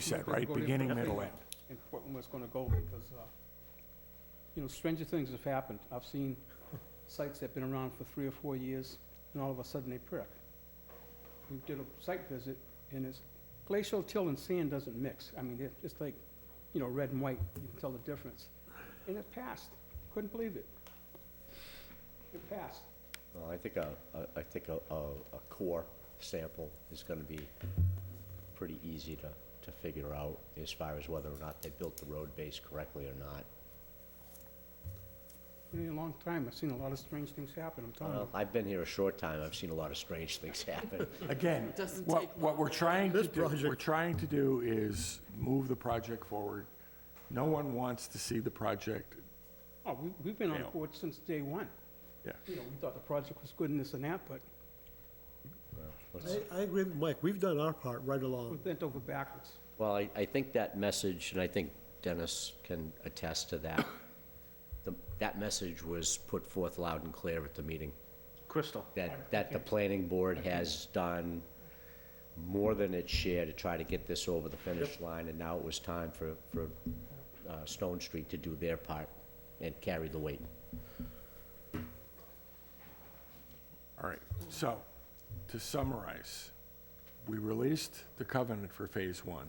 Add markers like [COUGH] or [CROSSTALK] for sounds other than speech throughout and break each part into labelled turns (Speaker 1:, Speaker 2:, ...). Speaker 1: You said, right?
Speaker 2: Go there
Speaker 1: Beginning,
Speaker 2: for the
Speaker 1: middle,
Speaker 2: thing.
Speaker 1: end.
Speaker 2: And Portland was gonna go because, uh, you know, stranger things have happened. I've seen sites that've been around for three or four years, and all of a sudden they perk. We did a site visit, and it's glacial till and sand doesn't mix. I mean, it- it's like, you know, red and white, you can tell the difference. And it passed. Couldn't believe it. It passed.
Speaker 3: Well, I think a, a- I think a, a a core sample is gonna be pretty easy to, to figure out as far as whether or not they built the road base correctly or not.
Speaker 2: In a long time, I've seen a lot of strange things happen, I'm telling you.
Speaker 3: Well, Um, I've been here a short time, I've seen a lot of strange things [LAUGHS] happen.
Speaker 1: Again,
Speaker 4: Doesn't
Speaker 1: what,
Speaker 4: take
Speaker 1: what we're trying to
Speaker 5: This
Speaker 1: do,
Speaker 5: project-
Speaker 1: we're trying to do is move the project forward. No one wants to see the project,
Speaker 2: Oh, we- we've been on
Speaker 1: Yeah.
Speaker 2: board since day one.
Speaker 1: yeah.
Speaker 2: You know, we thought the project was good and this and that, but
Speaker 3: Let's-
Speaker 5: I, I agree with Mike, we've done our part right
Speaker 2: we
Speaker 5: along.
Speaker 2: bent over backwards.
Speaker 3: Well, I, I think that message, and I think Dennis can attest to that, the- that message was put forth loud and clear at the meeting.
Speaker 6: Crystal,
Speaker 3: that, that the planning board has done more than its share to try to get this over the finish line, and now it was time for, for uh, Stone Street to do their part and carry the weight.
Speaker 1: All right, so, to summarize, we released the covenant for Phase One.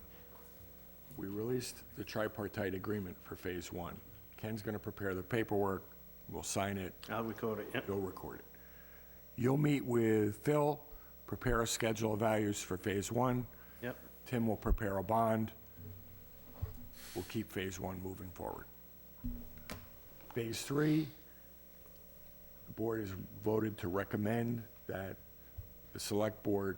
Speaker 1: We released the tripartite agreement for Phase One. Ken's gonna prepare the paperwork, we'll sign it,
Speaker 6: I'll record it, yep.
Speaker 1: you'll record it. You'll meet with Phil, prepare a schedule of values for Phase One.
Speaker 6: Yep.
Speaker 1: Tim will prepare a bond. We'll keep Phase One moving forward. Phase Three, the board has voted to recommend that the Select Board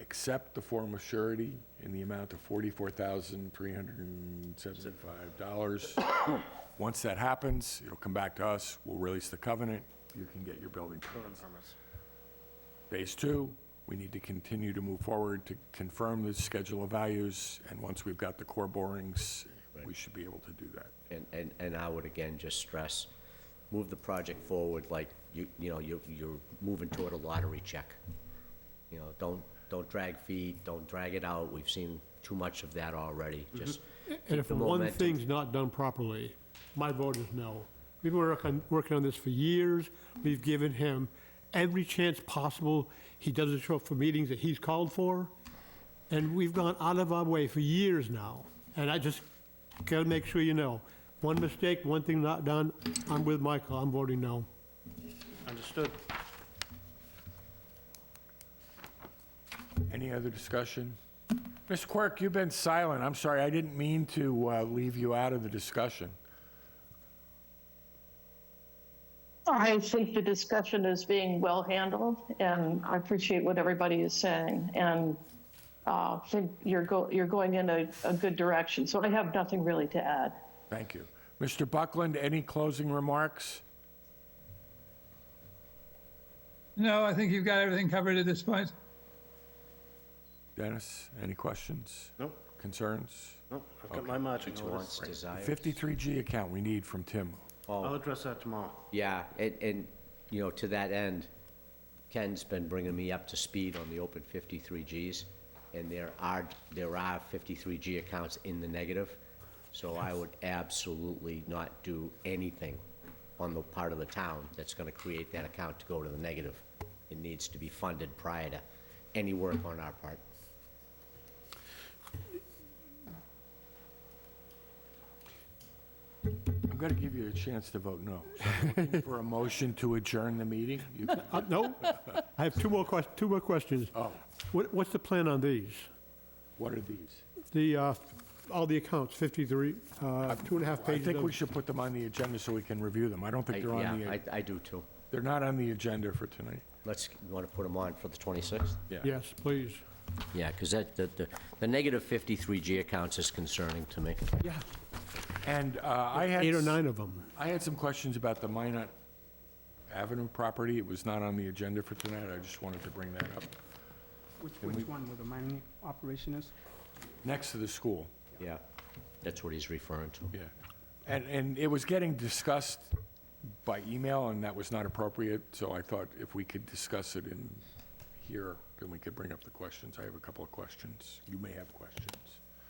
Speaker 1: accept the form of surety in the amount of $44,375. Once that happens, it'll come back to us, we'll release the covenant, you can get your building permits. Phase two, we need to continue to move forward to confirm the schedule of values, and once we've got the core borings, we should be able to do that.
Speaker 3: And, and, and I would again just stress, move the project forward like you, you know, you're, you're moving toward a lottery check. You know, don't, don't drag feet, don't drag it out, we've seen too much of that already, just
Speaker 5: Mm-hmm. And
Speaker 3: keep
Speaker 5: if
Speaker 3: the
Speaker 5: one
Speaker 3: momentum.
Speaker 5: thing's not done properly, my vote is no. We've been working, working on this for years, we've given him every chance possible. He doesn't show up for meetings that he's called for, and we've gone out of our way for years now. And I just gotta make sure you know, one mistake, one thing not done, I'm with Michael, I'm voting no.
Speaker 6: Understood.
Speaker 1: Any other discussion? Mr. Quirk, you've been silent. I'm sorry, I didn't mean to uh, leave you out of the discussion.
Speaker 7: I think the discussion is being well handled, and I appreciate what everybody is saying. And uh, think you're go, you're going in a, a good direction. So I have nothing really to add.
Speaker 1: Thank you. Mr. Buckland, any closing remarks?
Speaker 8: No, I think you've got everything covered at this point.
Speaker 1: Dennis, any questions,
Speaker 6: Nope,
Speaker 1: concerns?
Speaker 6: nope, I've got my marching
Speaker 3: It's
Speaker 6: orders.
Speaker 3: wants, desires.
Speaker 1: 53G account we need from Tim.
Speaker 6: I'll address that tomorrow.
Speaker 3: Yeah, and, and, you know, to that end, Ken's been bringing me up to speed on the open 53Gs, and there are, there are 53G accounts in the negative, so I would absolutely not do anything on the part of the town that's gonna create that account to go to the negative. It needs to be funded prior to any work on our part.
Speaker 1: I'm going to give you a chance to vote no. So I'm looking For a motion to adjourn the meeting? You-
Speaker 5: Uh, no, I have two more ques, two more questions.
Speaker 1: Oh,
Speaker 5: What, what's the plan on these?
Speaker 1: what are these?
Speaker 5: The, uh, all the accounts, 53, uh, two and a half
Speaker 1: I
Speaker 5: pages
Speaker 1: think we
Speaker 5: of,
Speaker 1: should put them on the agenda so we can review them. I don't
Speaker 3: I-
Speaker 1: think they're on
Speaker 3: Yeah,
Speaker 1: the,
Speaker 3: I, I do too.
Speaker 1: they're not on the agenda for tonight.
Speaker 3: Let's, you wanna put them on for the 26th?
Speaker 5: yes, please.
Speaker 3: Yeah, 'cause that, the, the, the negative 53G accounts is concerning to me.
Speaker 1: Yeah. And uh, I had.
Speaker 5: Eight or
Speaker 1: s-
Speaker 5: nine of them.
Speaker 1: I had some questions about the Minot Avenue property. It was not on the agenda for tonight. I just wanted to bring that up.
Speaker 2: Which, which one, where the mining operation is?
Speaker 1: Next to the school,
Speaker 3: Yeah, that's what he's referring to.
Speaker 1: yeah. And, and it was getting discussed by email, and that was not appropriate, so I thought if we could discuss it in here, then we could bring up the questions. I have a couple of questions. You may have questions.